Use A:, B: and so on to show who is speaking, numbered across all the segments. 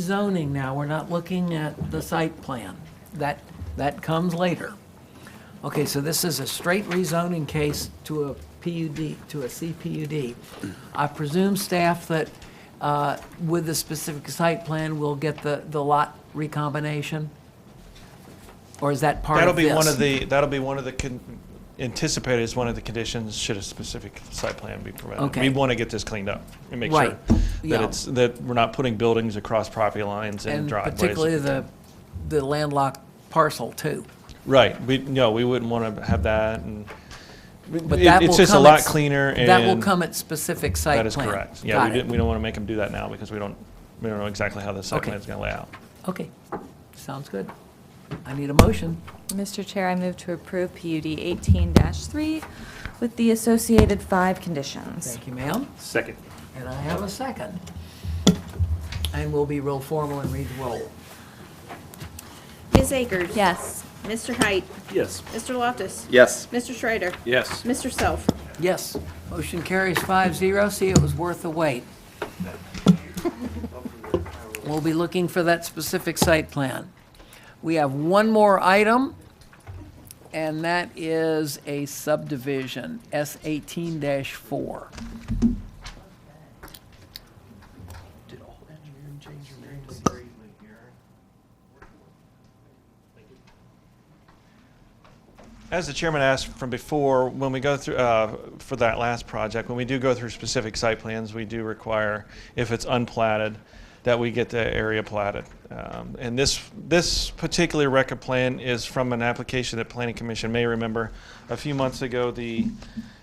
A: rezoning now, we're not looking at the site plan. That, that comes later. Okay, so this is a straight rezoning case to a PUD, to a CPUD. I presume staff that uh, with the specific site plan, we'll get the, the lot recombination? Or is that part
B: That'll
A: of this?
B: be one of the, that'll be one of the, con- anticipated as one of the conditions, should a specific site plan be provided.
A: Okay.
B: We want to get this cleaned up and make
A: Right.
B: sure
A: Yeah.
B: that it's, that we're not putting buildings across property lines and
A: And
B: driveways.
A: particularly the, the landlocked parcel too.
B: Right, we, no, we wouldn't want to have that and.
A: But
B: it-
A: that will
B: It's just a
A: come
B: lot
A: at s-
B: cleaner and.
A: That will come at specific site
B: That
A: plan.
B: is correct. Yeah, we
A: Got it.
B: didn't, we don't want to make them do that now because we don't, we don't know exactly how the site
A: Okay.
B: plan's going to lay out.
A: Okay, sounds good. I need a motion.
C: Mr. Chair, I move to approve PUD 18-3 with the associated five conditions.
A: Thank you, ma'am.
B: Second.
A: And I have a second. And we'll be real formal and read the roll.
D: Ms. Akers?
C: Yes.
D: Mr. Height?
E: Yes.
D: Mr. Loftus?
E: Yes.
D: Mr. Schreider?
E: Yes.
D: Mr. Self?
A: Yes, motion carries five zero. See, it was worth the wait. We'll be looking for that specific site plan. We have one more item, and that is a subdivision, S eighteen four.
B: As the chairman asked from before, when we go through, uh, for that last project, when we do go through specific site plans, we do require, if it's unplatted, that we get the area platted. Um, And this, this particular record plan is from an application that Planning Commission may remember. A few months ago, the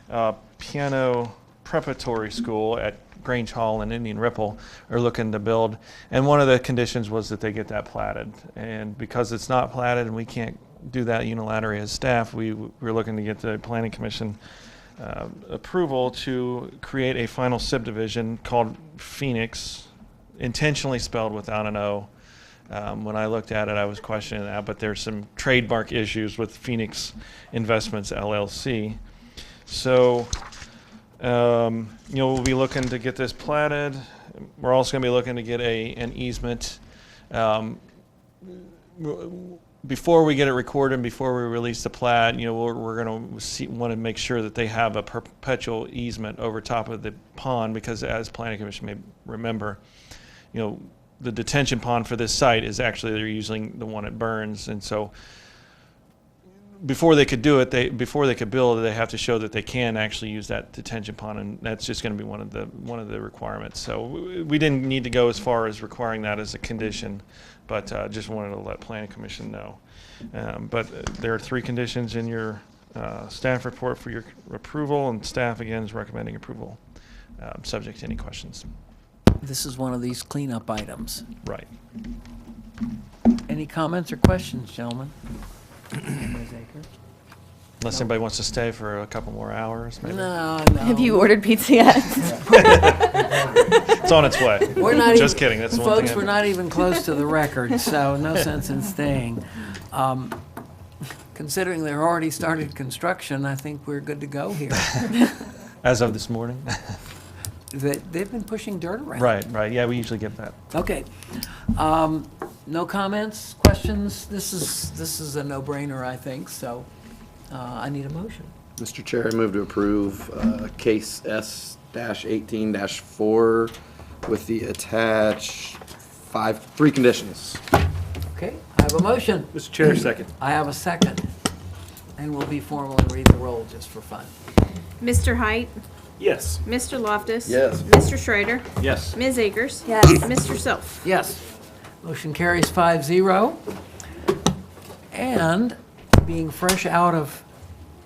B: uh, piano preparatory school at Grange Hall and Indian Ripple are looking to build. And one of the conditions was that they get that platted. And because it's not platted and we can't do that unilaterally as staff, we, we're looking to get the planning commission uh, approval to create a final subdivision called Phoenix, intentionally spelled without an O. Um, when I looked at it, I was questioning that, but there's some trademark issues with Phoenix Investments LLC. So, um, you know, we'll be looking to get this platted. We're also gonna be looking to get a, an easement. Um, before we get it recorded and before we release the plat, you know, we're, we're gonna see, wanna make sure that they have a perpetual easement over top of the pond, because as planning commission may remember, you know, the detention pond for this site is actually, they're using the one at Burns, and so before they could do it, they, before they could build, they have to show that they can actually use that detention pond, and that's just gonna be one of the, one of the requirements. So we, we didn't need to go as far as requiring that as a condition, but, uh, just wanted to let planning commission know. Um, but uh, there are three conditions in your, uh, staff report for your approval, and staff again is recommending approval, um, subject to any questions.
A: This is one of these cleanup items.
B: Right.
A: Any comments or questions, gentlemen? Ms. Akers?
B: Unless anybody wants to stay for a couple more hours, maybe.
A: No, no.
C: Have you ordered pizza yet?
B: It's on its way.
A: We're not
B: Just
A: even-
B: kidding. That's the one thing.
A: Folks,
B: I-
A: we're not even close to the record, so no sense in staying. Um, Considering they're already started construction, I think we're good to go here.
B: As of this morning.
A: They- They've been pushing dirt around.
B: right, right. Yeah, we usually get that.
A: Okay. Um, No comments, questions? This is, this is a no-brainer, I think, so uh, I need a motion.
F: Mr. Chair, I move to approve uh, case S-18-4 with the attached five, three conditions.
A: Okay, I have a motion.
E: Mr. Chair, second.
A: I have a second. And we'll be formal and read the roll just for fun.
D: Mr. Height?
E: Yes.
D: Mr. Loftus?
F: Yes.
D: Mr. Schreider?
E: Yes.
D: Ms. Akers?
C: Yes.
D: Mr. Self?
A: Yes. Motion carries five zero. And being fresh out of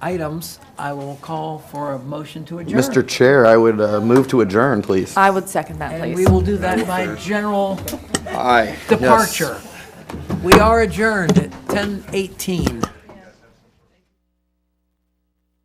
A: items, I will call for a motion to adjourn.
F: Mr. Chair, I would uh, move to adjourn, please.
C: I would second that,
A: And
C: please.
A: we will do that by general
F: Aye. Yes.
A: departure. We are adjourned at 10:18.